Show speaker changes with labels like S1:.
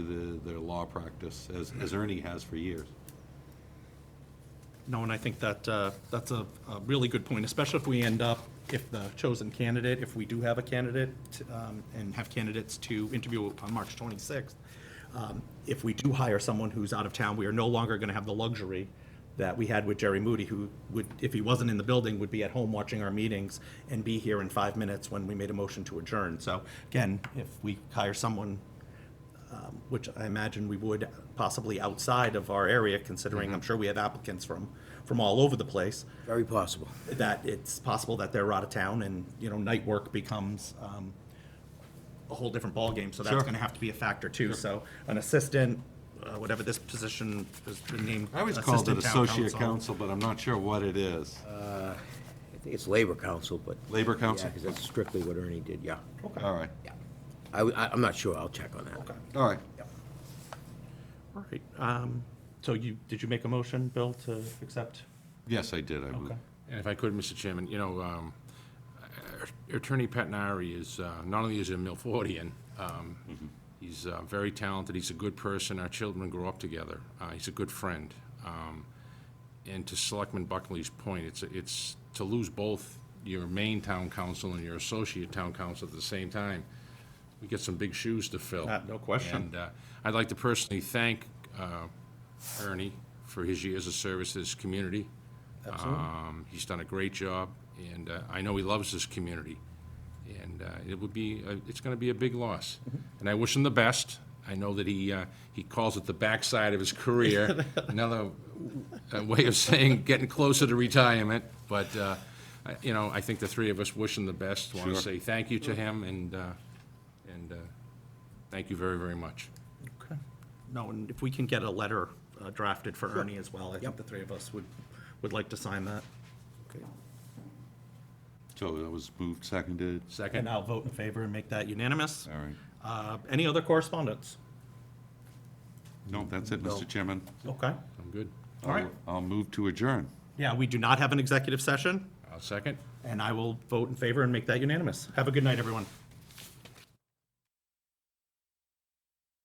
S1: law practice, as, as Ernie has for years.
S2: No, and I think that, uh, that's a a really good point, especially if we end up, if the chosen candidate, if we do have a candidate um, and have candidates to interview on March 26th, um, if we do hire someone who's out of town, we are no longer going to have the luxury that we had with Jerry Moody, who would, if he wasn't in the building, would be at home watching our meetings and be here in five minutes when we made a motion to adjourn. So again, if we hire someone um, which I imagine we would possibly outside of our area,
S1: Mm-hmm.
S2: considering I'm sure we have applicants from, from all over the place,
S3: Very possible.
S2: that it's possible that they're out of town and, you know, night work becomes um, a whole different ballgame, so that's
S1: Sure.
S2: gonna have to be a factor too. So an assistant, uh, whatever this position is named.
S1: I always called it
S2: assistant town Uh,
S1: associate counsel, but I'm not sure what it is.
S3: I think it's Labor Council, but.
S1: Labor counsel?
S3: Yeah, because that's strictly what Ernie did, yeah.
S2: Okay.
S1: All right,
S3: I, I- I'm not sure, I'll check on that.
S2: Okay.
S1: all right.
S2: All right, um, so you, did you make a motion, Bill, to accept?
S1: Yes, I did, I moved.
S2: Okay.
S4: And if I could, Mr. Chairman, you know, um, uh, Attorney Patnari is, uh, not only is he a Milfordian, um, he's uh, very talented, he's a good person, our children grow up together, uh, he's a good friend. Um, And to Selectman Buckley's point, it's, it's to lose both your main town council and your associate town council at the same time, we get some big shoes to fill.
S2: Uh, no question.
S4: And uh, I'd like to personally thank uh, Ernie for his years of service to this community. Um, He's done a great job, and uh, I know he loves this community. And uh, it would be, uh, it's going to be a big loss.
S2: Mm-hmm.
S4: And I wish him the best. I know that he, uh, he calls it the backside of his career, another uh, way of saying getting closer to retirement. But, uh, I- you know, I think the three of us wish him the best. Want to
S1: Sure.
S4: say thank you to him, and, uh, and uh, Thank you very, very much.
S2: Okay. No, and if we can get a letter uh, drafted for Ernie as well, I think the three of us would, would like to sign that.
S1: So that was moved, seconded,
S2: And
S4: Second?
S2: I'll vote in favor and make that unanimous.
S1: all right.
S2: Uh, Any other correspondence?
S1: No, that's it, Mr. Chairman.
S2: Okay.
S4: I'm good.
S2: All right.
S1: I'll I'll move to adjourn.
S2: Yeah, we do not have an executive session,
S4: I'll second.
S2: and I will vote in favor and make that unanimous. Have a good night, everyone.